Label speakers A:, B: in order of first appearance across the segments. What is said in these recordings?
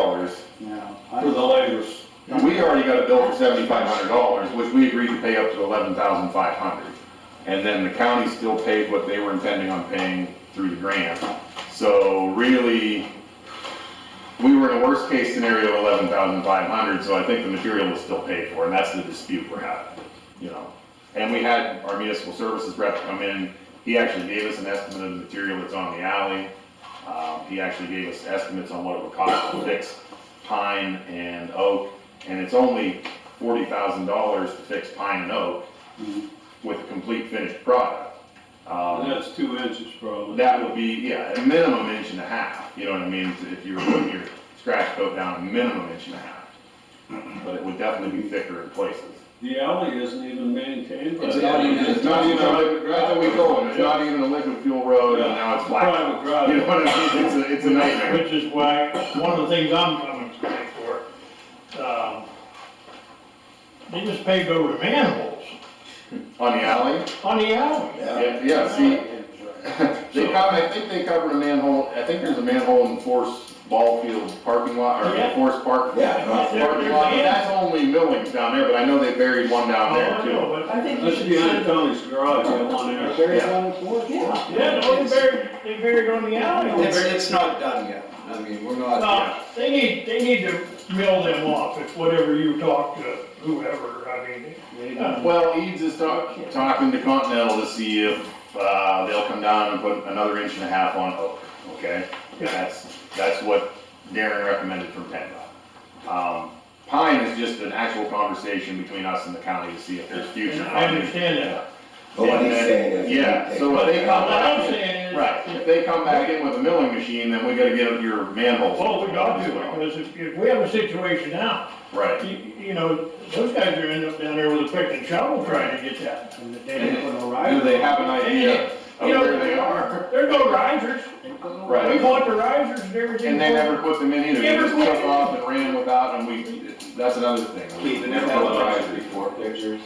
A: guys,
B: No,
A: for the
B: I,
A: labors.
B: Yeah.
C: We already got a bill for seventy-five hundred dollars, which we agreed to pay up to eleven thousand five hundred. And then the county still paid what they were intending on paying through the grant. So really, we were in a worst-case scenario of eleven thousand five hundred, so I think the material was still paid for, and that's the dispute we're having, you know? And we had our municipal services rep come in, he actually gave us an estimate of the material that's on the alley. Um, he actually gave us estimates on what it would cost to fix pine and oak, and it's only forty thousand dollars to fix pine and oak
B: Mhm.
C: with a complete finished product. Um,
A: And that's two inches probably.
C: that would be, yeah, a minimum inch and a half, you know what I mean, if you were putting your scratch coat down, a minimum inch and a half. But it would definitely be thicker in places.
A: The alley isn't even maintained by.
B: It's
A: the-
B: not even-
C: It's not even a liquid, that's what we told them, it's not even a liquid fuel road, and now it's
A: Private
C: flat. You know
A: drive.
C: what I mean, it's a, it's a nightmare.
D: Which is why, one of the things I'm coming today for, um, they just paved over the manholes
C: On the alley,
D: on the alley.
B: yeah.
C: yeah, yeah, see,
B: Right.
C: They cover, I think they cover a manhole, I think there's a manhole in Forest Ball Field parking lot, or
D: Yeah.
C: Forest Park.
B: Yeah.
C: Parking lot, but that's only Millings down there, but I know they buried one down there
D: Oh,
C: too.
D: no,
B: I
D: but,
B: think you
A: That's
B: should send
A: behind
B: them
A: Tony's garage, that one
B: a
A: there.
B: very final report. Yeah.
D: yeah, no, they buried, they buried on the
E: It's,
D: alley.
E: it's not done yet, I mean, we're not,
D: Uh, they need, they need to mill them off, it's whatever you talk to whoever, I mean, uh,
C: Well, Eads is talk, talking to Continental to see if, uh, they'll come down and put another inch and a half on oak, okay? That's, that's what Darren recommended from PennDOT. Um, Pine is just an actual conversation between us and the county to see if there's future.
D: I understand that.
F: But what he's
C: Yeah,
F: saying is.
C: Yeah, so if
D: But
C: they
D: what
C: come back.
D: I'm saying is.
C: Right, if they come back in with a milling machine, then we gotta get your manholes.
D: Well, Oh, we gotta do it, because if, if we have a situation now,
C: Right,
D: you, you know, those guys are ending up down there with a pick and shovel trying to get that.
B: And they didn't put no
C: do
B: rider.
C: they have an idea of
D: You know,
C: where they are?
D: There are no risers,
B: They put no
C: Right.
D: we bought the risers and everything.
C: And they never put them in either, they
D: Never
C: just
D: put
C: took
D: it in.
C: off and ran without, and we, that's another thing.
G: We, we
C: never
G: have had
C: put
G: lots
C: risers.
G: of before pictures,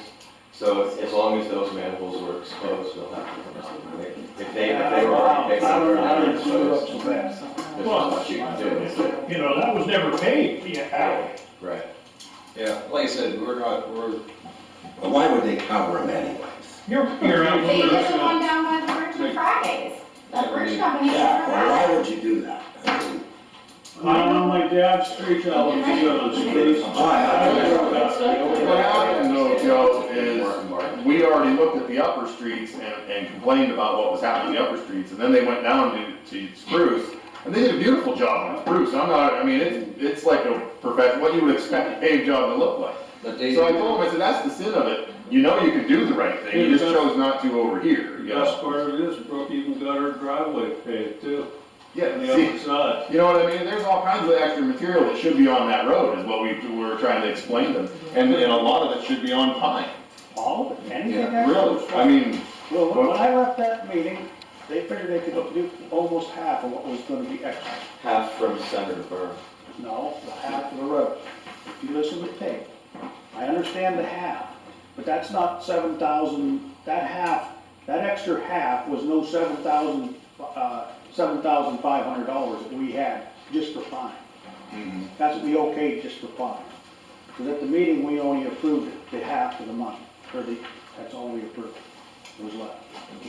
G: so as- as long as those manholes were exposed, we'll have to. come up with it. If they, if they were already
B: I
G: fixed,
B: don't know how
G: they were
B: to screw up
G: exposed,
B: so fast.
G: there's not much you can do, is there?
D: You know, that was never paid, the alley.
G: Right.
E: yeah, like I said, we're not, we're,
F: But why would they cover them anyways?
D: You're, you're out
H: They did
D: there.
H: the one down by the bridge on Fridays. The bridge company.
F: Why would you do that? I mean,
A: I know my dad's street alley, he's got a spruce.
C: What happened though, Joe, is
G: Mark, Mark.
C: we already looked at the upper streets and, and complained about what was happening in the upper streets, and then they went down to, to Spruce, and they did a beautiful job on Spruce, I'm not, I mean, it's, it's like a perfect, what you would expect a paved job to look like.
E: but they,
C: So I told him, I said, that's the sin of it, you know you can do the right thing, you just chose not to over here, you know?
A: That's where it is, Brooke even got her driveway paved too, on
C: Yeah,
A: the
C: see,
A: other side.
C: you know what I mean, there's all kinds of extra material that should be on that road, is what we, we were trying to explain to them, and, and a lot of it should be on pine,
B: All, of it, anything
E: Yeah,
B: that
C: really,
B: goes
C: I mean,
B: Well, when I left that meeting, they figured they could do almost half of what was gonna be extra.
G: Half from center to burn.
B: No, the half of the road. If you listen to the tape, I understand the half, but that's not seven thousand, that half, that extra half was no seven thousand, uh, seven thousand five hundred dollars that we had just for fine. That's what we okayed just for fine. Because at the meeting, we only approved the half of the money, or the, that's all we approved, was left.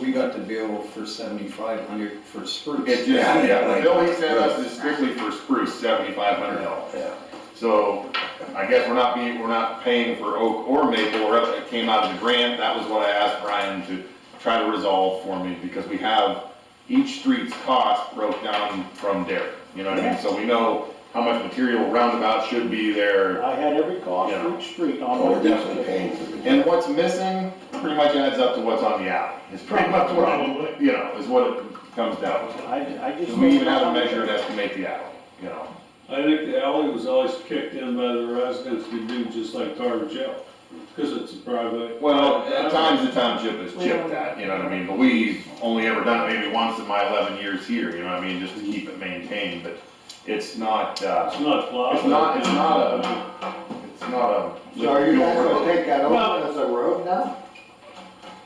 E: we got the bill for seventy-five hundred for spruce.
C: It just,
F: Yeah,
C: yeah, the
F: like-
C: bill he sent us is strictly for spruce, seventy-five hundred dollars.
F: Yeah.
C: So I guess we're not being, we're not paying for oak or maple, or else it came out of the grant, that was what I asked Brian to try to resolve for me, because we have each street's cost broke down from Derek, you know what I mean? So we know how much material roundabout should be there,
B: I had every cost for each street on
F: Well,
B: my.
F: Oh, we're definitely paying for the.
C: and what's missing pretty much adds up to what's on the alley. It's pretty much what,
D: Probably.
C: it- you know, is what it comes down to.
B: I, I just.
C: We even have to measure and estimate the alley, you know?
A: I think the alley was always kicked in by the residents to do just like Tarver Jail, because it's a private.
C: Well, at times the township has chipped that, you know what I mean, but we've only ever done it maybe once in my eleven years here, you know what I mean, just to keep it maintained, but it's not,
A: It's
C: uh,
A: not plowed.
C: it's not, it's not a, it's not a.
I: So are you guys gonna take that over as a road now?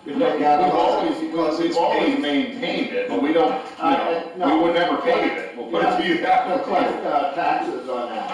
C: We've always, we've always maintained it, but we don't, you
I: Uh,
C: know,
I: no.
C: we would never pave it, we'll put it to you that
I: To
C: way.
I: collect uh, taxes on that?